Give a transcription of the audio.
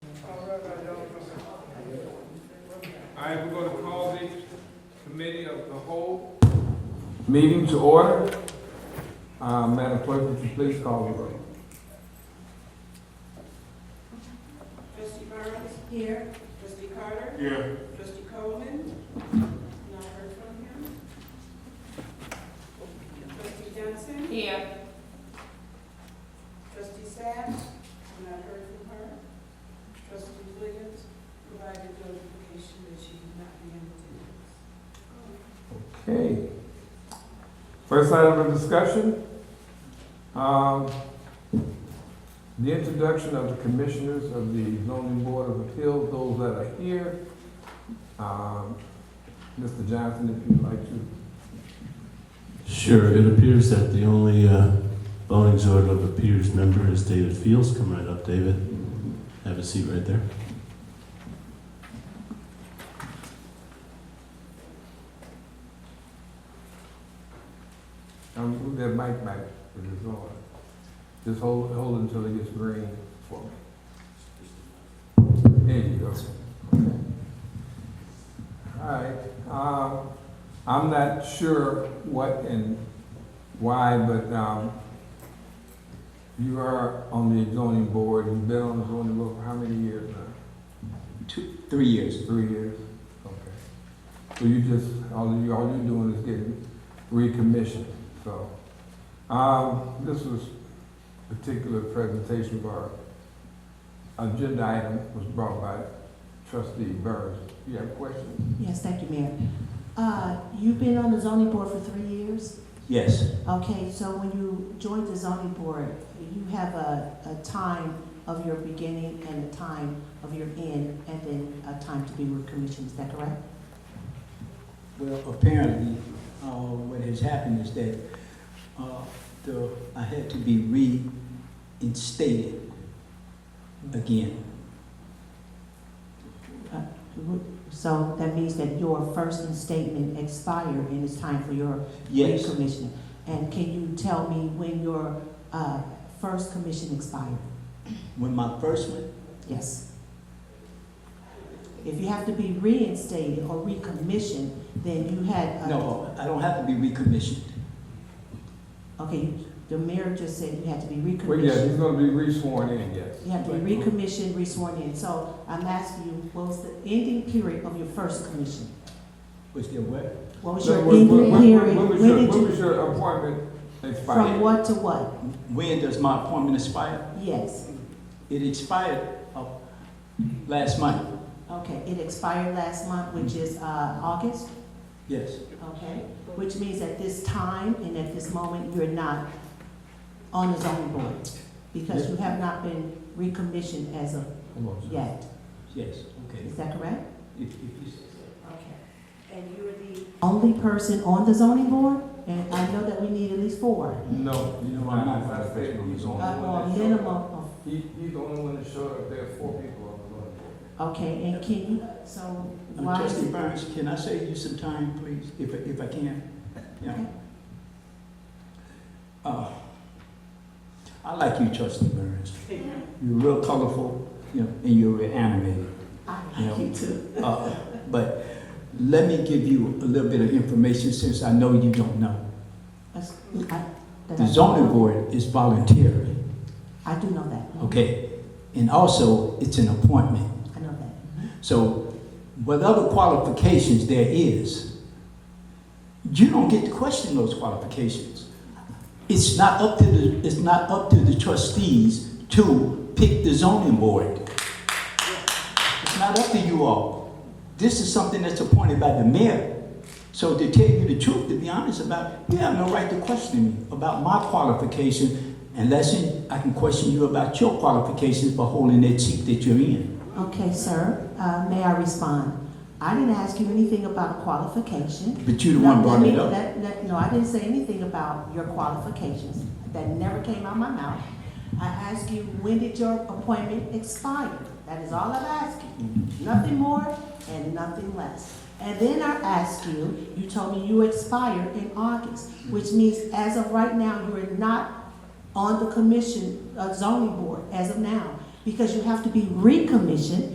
right, we're gonna call the committee of the whole meeting to order. Uh, Madam Clerk, would you please call the roll? Trustee Burns? Here. Trustee Carter? Here. Trustee Coleman? Not heard from him. Trustee Johnson? Here. Trustee Sack? I've not heard from her. Trustee Williams provided notification that she did not be in attendance. Okay. First item of discussion, um, the introduction of the commissioners of the zoning board of appeals, those that are here. Um, Mr. Johnson, if you'd like to Sure, it appears that the only uh, voting sort of appears member is David Fields. Come right up, David. Have a seat right there. Um, move that mic back to the door. Just hold, hold it until it gets green for me. There you go. Alright, um, I'm not sure what and why, but, um, you are on the zoning board, you've been on the zoning board for how many years now? Two, three years. Three years? Okay. So you just, all you, all you're doing is getting recommissioned, so. Um, this was particular presentation bar, agenda item was brought by trustee Burns. You have questions? Yes, thank you, Mayor. Uh, You've been on the zoning board for three years? Yes, Okay, so when you joined the zoning board, you have a, a time of your beginning and a time of your end, and then a time to be recommissioned, is that correct? well, apparently, uh, what has happened is that, uh, the, I had to be reinstated again. So that means that your first statement expired and it's time for your Yes, recommissioning. And can you tell me when your uh, first commission expired? when my first one, Yes. If you have to be reinstated or recommissioned, then you had. uh, a- no, I don't have to be recommissioned. Okay, the mayor just said you had to be Well, yeah, recommissioned. he's gonna be resworn in, yes. You have to be recommissioned, resworn in. So I'm asking you, what was the ending period of your first commission? Was there what? What was So your When when- ending when- period? when was When your, did when you, was your appointment from expired? what to what? When does my appointment expire? Yes, It expired, uh, last month, okay, it expired last month, which is uh, August, yes. okay? Which means at this time and at this moment, you're not on the zoning board because you have not been recommissioned as of Come on, sir. yet. Yes, okay. Is that correct? If, if you say so. Okay, and you are the. Only person on the zoning board, and I know that we need at least four, No, you know, I'm not, I said he's Oh, on. uh, or a minimum of, He, he's the only one that showed up, there are four people on the zoning board. okay, and can you, so Uh, why is Trustee it? Burns, can I save you some time, please, if, if I can? Yeah. Okay. Uh, I like you, Trustee Burns. You're real colorful, you know, and you're real animated. I You know, like you too. Uh, But let me give you a little bit of information since I know you don't know. That's- I- that The I- zoning board is voluntary, I do know that, okay? And also, it's an appointment. I know that. So whatever qualifications there is, you don't get to question those qualifications. It's not up to the, it's not up to the trustees to pick the zoning board. It's not up to you all. This is something that's appointed by the mayor. So to tell you the truth, to be honest about, it, you have no right to question me about my qualification unless I can question you about your qualifications for holding that seat that you're in. Okay, sir, uh, may I respond? I didn't ask you anything about qualification. But you the one No, let brought it me- up. let- let- No, I didn't say anything about your qualifications, that never came out of my mouth. I asked you, when did your appointment expire? That is all I'm asking. Nothing more and nothing less. And then I asked you, you told me you expired in August, which means as of right now, you are not on the commission, uh, zoning board as of now, because you have to be recommissioned